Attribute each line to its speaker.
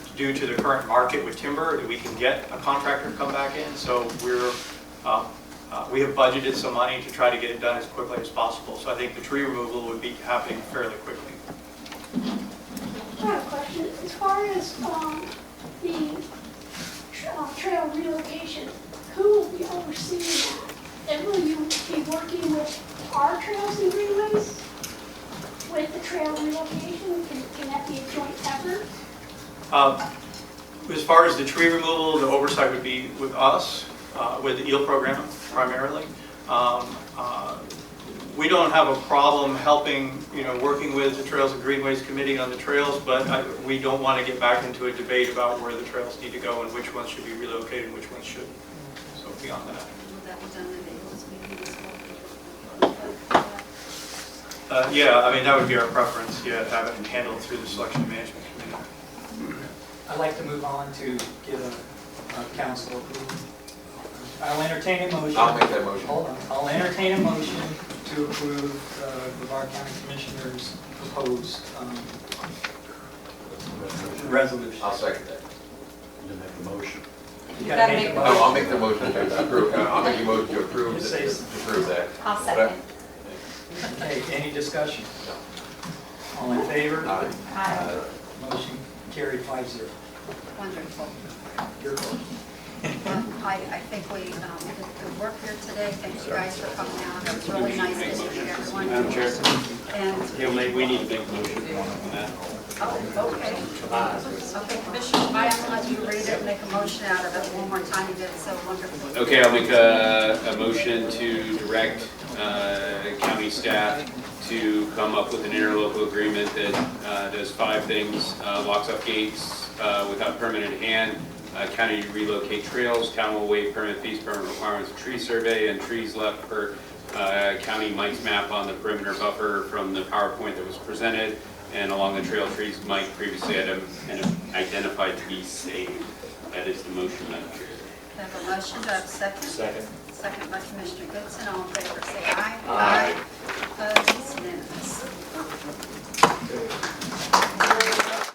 Speaker 1: due to the current market with timber, that we can get a contractor to come back in. So we're, um, uh, we have budgeted some money to try to get it done as quickly as possible. So I think the tree removal would be happening fairly quickly.
Speaker 2: I have a question. As far as, um, the tra- uh, trail relocation, who will be overseeing that? And will you be working with our trails and greenways? With the trail relocation, can, can that be a joint effort?
Speaker 1: Um, As far as the tree removal, the oversight would be with us, uh, with the EEL program primarily. Um, uh, We don't have a problem helping, you know, working with the Trails and Greenways Committee on the trails, but I- we don't want to get back into a debate about where the trails need to go and which ones should be relocated and which ones shouldn't. So beyond that.
Speaker 3: That was done at the Hills meeting as
Speaker 1: Uh, Yeah, I mean, that would be our preference, yeah, to have it handled through the Selection Management Committee.
Speaker 4: I'd like to move on to get a a council approval. I'll entertain a motion.
Speaker 5: I'll make that motion.
Speaker 4: Hold on, I'll entertain a motion to approve uh, the Brevard County Commissioners' proposed um, resolution.
Speaker 5: I'll second that.
Speaker 6: You make a motion.
Speaker 3: You gotta make the
Speaker 5: No, Oh, I'll
Speaker 3: motion.
Speaker 5: make the motion to approve, I'll make a motion to approve,
Speaker 4: It
Speaker 5: that-
Speaker 4: says-
Speaker 5: to approve that.
Speaker 3: I'll second.
Speaker 4: Okay, any discussion? All in favor?
Speaker 5: Aye.
Speaker 3: Hi.
Speaker 4: Motion carried five zero.
Speaker 3: Wonderful.
Speaker 4: Your vote.
Speaker 3: Um, I, I think we, um, the the work here today, thanks you guys for coming out. It was really nice to see everyone.
Speaker 7: Madam Chair.
Speaker 3: And,
Speaker 7: Yeah, we we need to make a motion on that.
Speaker 3: oh, okay. Okay, Commissioner, I have to let you read it, make a motion out of it one more time. You did it so wonderfully.
Speaker 7: Okay, I'll make a, a motion to direct uh, county staff to come up with an interlocal agreement that uh, does five things. Uh, Locks up gates uh, without permit in hand, uh, county relocate trails, town will waive permit fees, permit requirements, tree survey, and trees left per uh, county Mike's map on the perimeter buffer from the PowerPoint that was presented, and along the trail trees Mike previously had um, identified to be saved. That is the motion, Madam Chair.
Speaker 3: I have a motion, do I have a second?
Speaker 7: Second.
Speaker 3: Second by Commissioner Goodson, all in favor, say aye. Aye.